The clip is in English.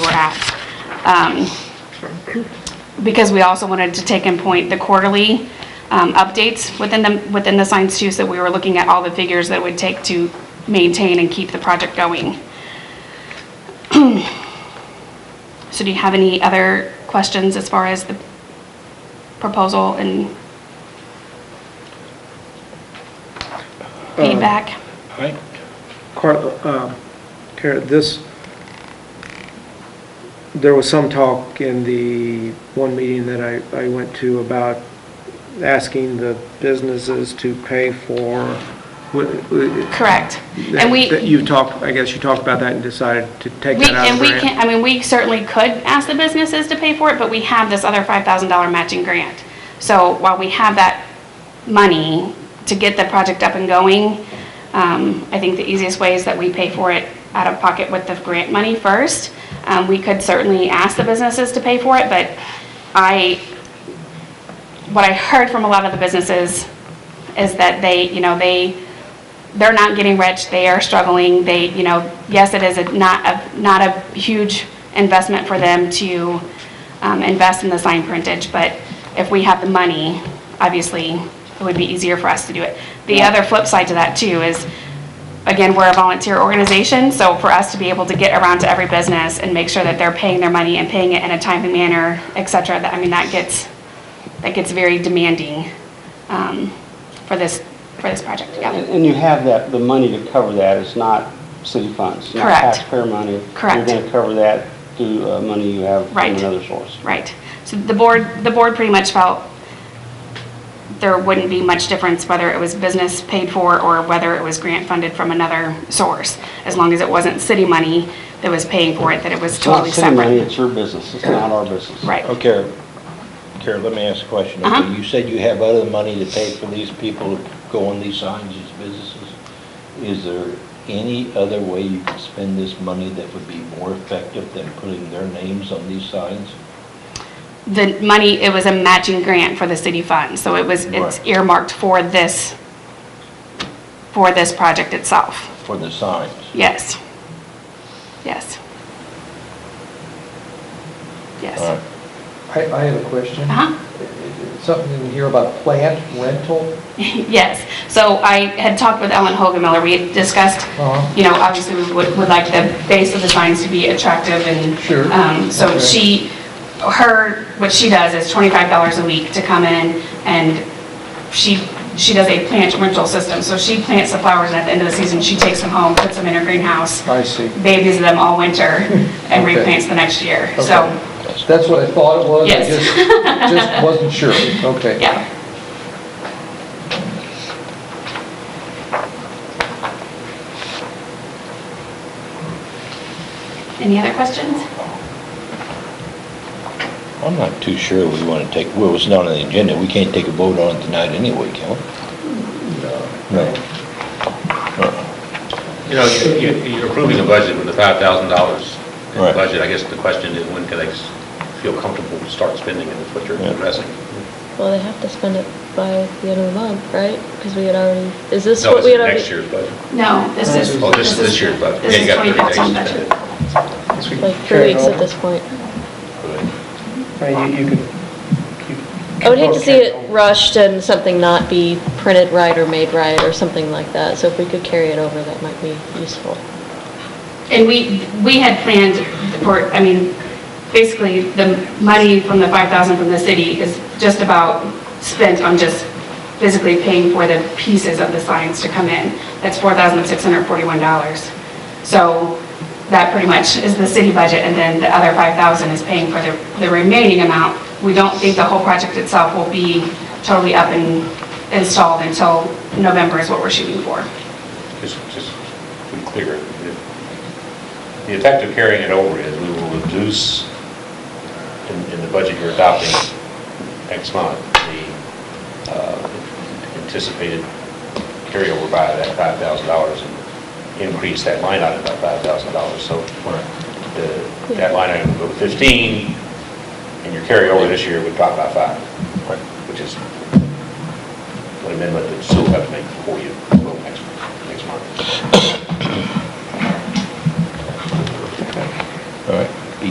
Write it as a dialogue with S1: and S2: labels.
S1: we're at. Um, Because we also wanted to take in point the quarterly um, updates within the, within the science too, so we were looking at all the figures that it would take to maintain and keep the project going. So do you have any other questions as far as the proposal and
S2: Um,
S1: feedback?
S3: Right.
S2: Carla, um, Kara, this, there was some talk in the one meeting that I, I went to about asking the businesses to pay for, what- what-
S1: Correct. And we,
S2: that you talked, I guess you talked about that and decided to take
S1: we,
S2: that out of
S1: and we
S2: grant.
S1: can, I mean, we certainly could ask the businesses to pay for it, but we have this other $5,000 matching grant. So while we have that money to get the project up and going, um, I think the easiest way is that we pay for it out of pocket with the grant money first. Um, We could certainly ask the businesses to pay for it, but I, what I heard from a lot of the businesses is that they, you know, they, they're not getting rich, they are struggling, they, you know, yes, it is a, not a, not a huge investment for them to um, invest in the sign printage, but if we have the money, obviously, it would be easier for us to do it. The other flip side to that too is, again, we're a volunteer organization, so for us to be able to get around to every business and make sure that they're paying their money and paying it in a timely manner, et cetera, that, I mean, that gets, that gets very demanding um, for this, for this project, yeah.
S4: And and you have that, the money to cover that, it's not city funds. not
S1: Correct.
S4: taxpayer money.
S1: Correct.
S4: You're going to cover that through uh, money you have from
S1: Right.
S4: another source.
S1: Right. So the board, the board pretty much felt there wouldn't be much difference whether it was business paid for or whether it was grant funded from another source, as long as it wasn't city money that was paying for it, that it was
S4: It's not
S1: totally
S4: city money,
S1: separate.
S4: it's your business, it's not our business.
S1: Right.
S3: Okay, Kara, Oh, let me ask a question. Okay,
S1: Uh-huh.
S3: You said you have other money to pay for these people to go on these signs, these businesses. Is there any other way you could spend this money that would be more effective than putting their names on these signs?
S1: The money, it was a matching grant for the city fund, so it was, it's
S3: Right.
S1: earmarked for this, for this project itself.
S3: For the signs?
S1: Yes. Yes.
S3: All right.
S1: Yes.
S5: I, I have a question.
S1: Uh-huh.
S5: Something in here about plant rental?
S1: Yes, so I had talked with Ellen Hogemiller, we had discussed,
S5: Uh-huh.
S1: you know, obviously we would, would like the base of the signs to be attractive and.
S5: Sure.
S1: um, So
S5: Okay.
S1: she, her, what she does is twenty-five dollars a week to come in and she, she does a plant rental system. So she plants the flowers and at the end of the season, she takes them home, puts them in her greenhouse,
S5: I see.
S1: babies them all winter and
S5: Uh-huh. Okay.
S1: replants the next year. So,
S5: That's what I thought it was? I
S1: Yes.
S5: just- Just wasn't sure. Okay.
S1: yeah. Any other questions?
S3: I'm not too sure we want to take, well, it's not on the agenda. We can't take a vote on it tonight anyway, can we? No. Uh-uh.
S6: You know, you- you- you're approving a budget with the $5,000 in the
S3: Right.
S6: budget. I guess the question is, when can they s- feel comfortable to start spending, and that's what you're
S3: Yeah.
S6: addressing.
S7: Well, they have to spend it by the end of the month, right? Because we had already, is this
S6: No,
S7: what we
S6: this is
S7: had already?
S6: next year's budget.
S1: No, this is.
S6: Oh, this is this year's budget.
S1: This
S6: Yeah, you
S1: is
S6: got 30 days
S1: 20,000
S6: to
S1: budget.
S6: spend it.
S7: Like three weeks at this point.
S2: Right, you- you could- you-
S7: I would hate to see it rushed and something not be printed right or made right or something like that. So if we could carry it over, that might be useful.
S1: And we, we had planned for, I mean, basically, the money from the 5,000 from the city is just about spent on just physically paying for the pieces of the signs to come in. That's $4,641. So that pretty much is the city budget, and then the other 5,000 is paying for the, the remaining amount. We don't think the whole project itself will be totally up and installed until November is what we're shooting for.
S6: Just, just to be clear, the effect of carrying it over is we will reduce in, in the budget you're adopting next month, the uh, anticipated carryover by that five thousand dollars and increase that line item by five thousand dollars. So the, that line item would go to fifteen, and your carryover this year would drop by five, which is an amendment that you still have to make before you vote next, next month.